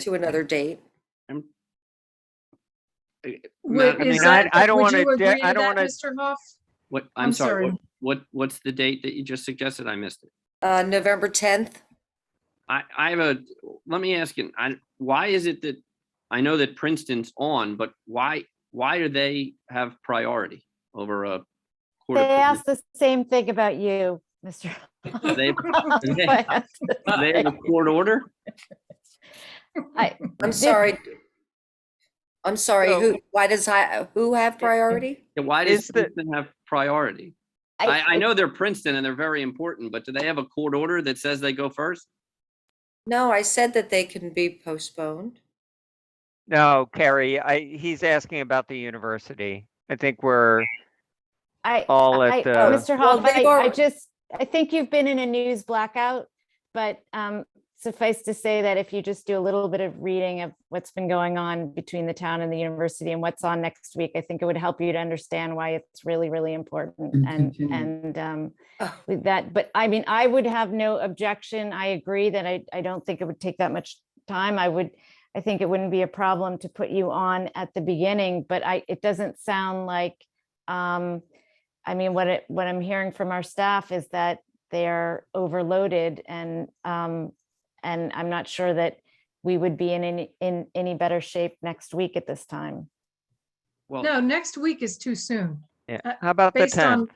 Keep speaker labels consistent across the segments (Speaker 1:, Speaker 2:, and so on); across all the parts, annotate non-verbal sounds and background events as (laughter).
Speaker 1: to another date.
Speaker 2: Would-
Speaker 3: I
Speaker 2: is
Speaker 3: mean, I-
Speaker 2: that-
Speaker 3: I don't
Speaker 2: would
Speaker 3: wanna
Speaker 2: you
Speaker 3: de-
Speaker 2: agree
Speaker 3: I
Speaker 2: to
Speaker 3: don't
Speaker 2: that,
Speaker 3: wanna-
Speaker 2: Mr. Hoff,
Speaker 3: What,
Speaker 2: I'm
Speaker 3: I'm
Speaker 2: sorry.
Speaker 3: sorry, what, what, what's the date that you just suggested? I missed it.
Speaker 1: Uh, November tenth,
Speaker 3: I, I have a, let me ask you, I, why is it that, I know that Princeton's on, but why, why do they have priority over a? Court
Speaker 4: They
Speaker 3: of
Speaker 4: asked the same thing about you, Mr.
Speaker 3: Provence? (laughs) They, they- they have a
Speaker 4: I-
Speaker 3: court order?
Speaker 1: I'm
Speaker 4: Did-
Speaker 1: sorry. I'm sorry,
Speaker 5: So-
Speaker 1: who, why does I, who have priority?
Speaker 3: Yeah, Why does
Speaker 5: Is the-
Speaker 3: Princeton have priority? (laughs) I, I know they're Princeton and they're very important, but do they have a court order that says they go first?
Speaker 1: No, I said that they can be postponed.
Speaker 5: No, Carrie, I, he's asking about the university. I think we're,
Speaker 4: I-
Speaker 5: all at
Speaker 4: I-
Speaker 5: the-
Speaker 4: Mr.
Speaker 1: Well,
Speaker 4: Hoff,
Speaker 1: they've
Speaker 4: I, I
Speaker 1: already-
Speaker 4: just, I think you've been in a news blackout, but um, suffice to say that if you just do a little bit of reading of what's been going on between the town and the university and what's on next week, I think it would help you to understand why it's really, really important and, and um,
Speaker 1: Oh,
Speaker 4: with that, but I mean, I would have no objection. I agree that I, I don't think it would take that much time. I would, I think it wouldn't be a problem to put you on at the beginning, but I, it doesn't sound like, um, I mean, what it, what I'm hearing from our staff is that they're overloaded and, um, and I'm not sure that we would be in any, in any better shape next week at this time.
Speaker 3: Well,
Speaker 2: No, next week is too soon,
Speaker 5: yeah,
Speaker 2: Uh,
Speaker 5: how about the
Speaker 2: based on.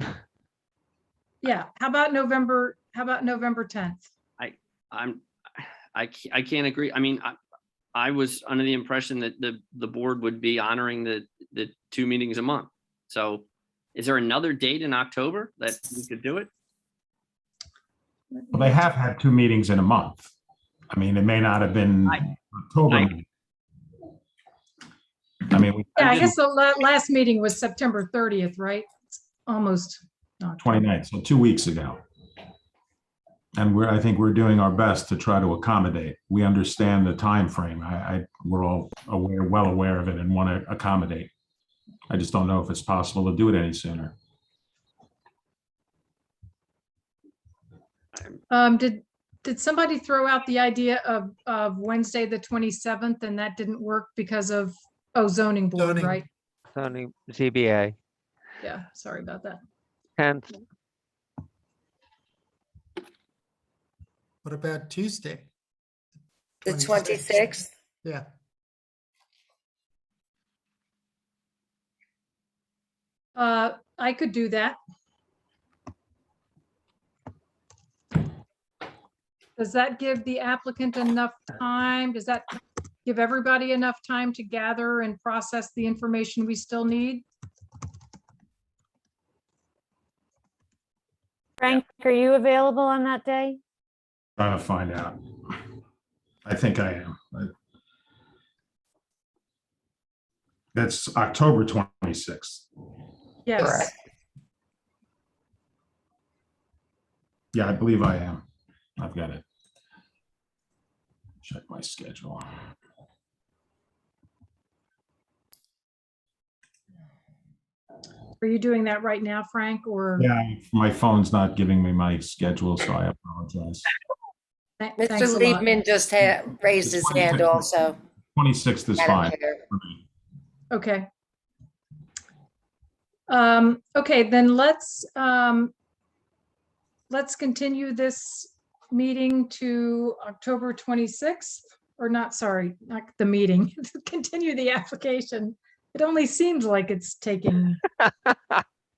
Speaker 5: tenth?
Speaker 3: (laughs)
Speaker 2: Yeah, how about November, how about November tenth?
Speaker 3: I'm, I, ca- I can't agree. I mean, I, I was under the impression that the, the board would be honoring the, the two meetings a month. So is there another date in October that we could do it?
Speaker 6: Well, they have had two meetings in a month. I mean, it may not have been
Speaker 3: I- I-
Speaker 6: October. I mean, we
Speaker 2: Yeah, I
Speaker 3: didn't-
Speaker 2: guess the la- last meeting was September thirtieth, right? It's Almost. not
Speaker 6: 29th, so two weeks ago. And we're, I think we're doing our best to try to accommodate. We understand the time frame. I, I, we're all aware, well aware of it and want to accommodate. I just don't know if it's possible to do it any sooner.
Speaker 2: Um, did, did somebody throw out the idea of, of Wednesday, the twenty-seventh, and that didn't work because of, oh, zoning board,
Speaker 7: Zoning.
Speaker 2: right?
Speaker 5: Sony ZBA,
Speaker 2: Yeah, sorry about that.
Speaker 5: tenth,
Speaker 7: What about Tuesday?
Speaker 1: The twenty-sixth?
Speaker 7: Yeah,
Speaker 2: Uh, I could do that. Does that give the applicant enough time? Does that give everybody enough time to gather and process the information we still need?
Speaker 4: Frank, are you available on that day?
Speaker 6: Trying to find out. I think I am. but- That's October 26th.
Speaker 2: Yes.
Speaker 6: Yeah, I believe I am. I've got it. Check my schedule.
Speaker 2: Are you doing that right now, Frank, or?
Speaker 6: Yeah, my phone's not giving me my schedule, so I apologize.
Speaker 2: Tha-
Speaker 1: Mr.
Speaker 2: thanks a lot.
Speaker 1: Liebman just ha- raised his hand
Speaker 6: 26th.
Speaker 1: also.
Speaker 6: 26th is
Speaker 1: Madam
Speaker 6: fine.
Speaker 1: Chair.
Speaker 6: for me.
Speaker 2: Okay. Um, okay, then let's, um, let's continue this meeting to October 26th, or not, sorry, not the meeting, (laughs) continue the application. It only seems like it's taking,
Speaker 6: Are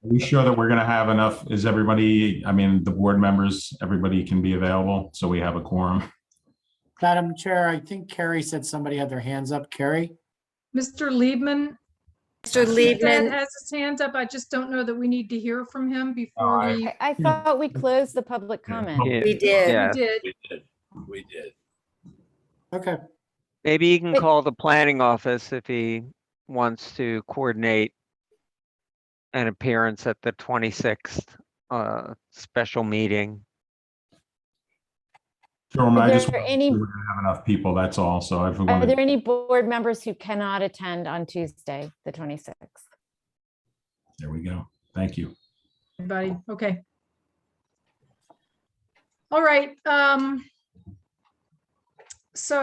Speaker 6: we sure that we're going to have enough? Is everybody, I mean, the board members, everybody can be available, so we have a quorum?
Speaker 8: Madam Chair, I think Carrie said somebody had their hands up. Carrie?
Speaker 2: Mr. Liebman.
Speaker 1: Mr.
Speaker 2: Dad
Speaker 1: Liebman,
Speaker 2: Has his hands up. I just don't know that we need to hear from him
Speaker 6: Oh,
Speaker 2: before
Speaker 6: I-
Speaker 2: we,
Speaker 4: I, I thought we closed the public
Speaker 6: Yeah.
Speaker 4: comment.
Speaker 5: Yeah.
Speaker 1: Oh, we did.
Speaker 5: Yeah.
Speaker 2: we did.
Speaker 9: We did, we did.
Speaker 8: Okay,
Speaker 5: maybe you can
Speaker 4: But-
Speaker 5: call the planning office if he wants to coordinate an appearance at the twenty-sixth, uh, special meeting.
Speaker 6: Jerome, Um, I
Speaker 4: there
Speaker 6: just want to
Speaker 4: any-
Speaker 6: we're going to have enough people, that's all, so I've.
Speaker 4: Are there any board members who cannot attend on Tuesday, the 26th?
Speaker 6: There we go. Thank you.
Speaker 2: Everybody, okay. All right, um. So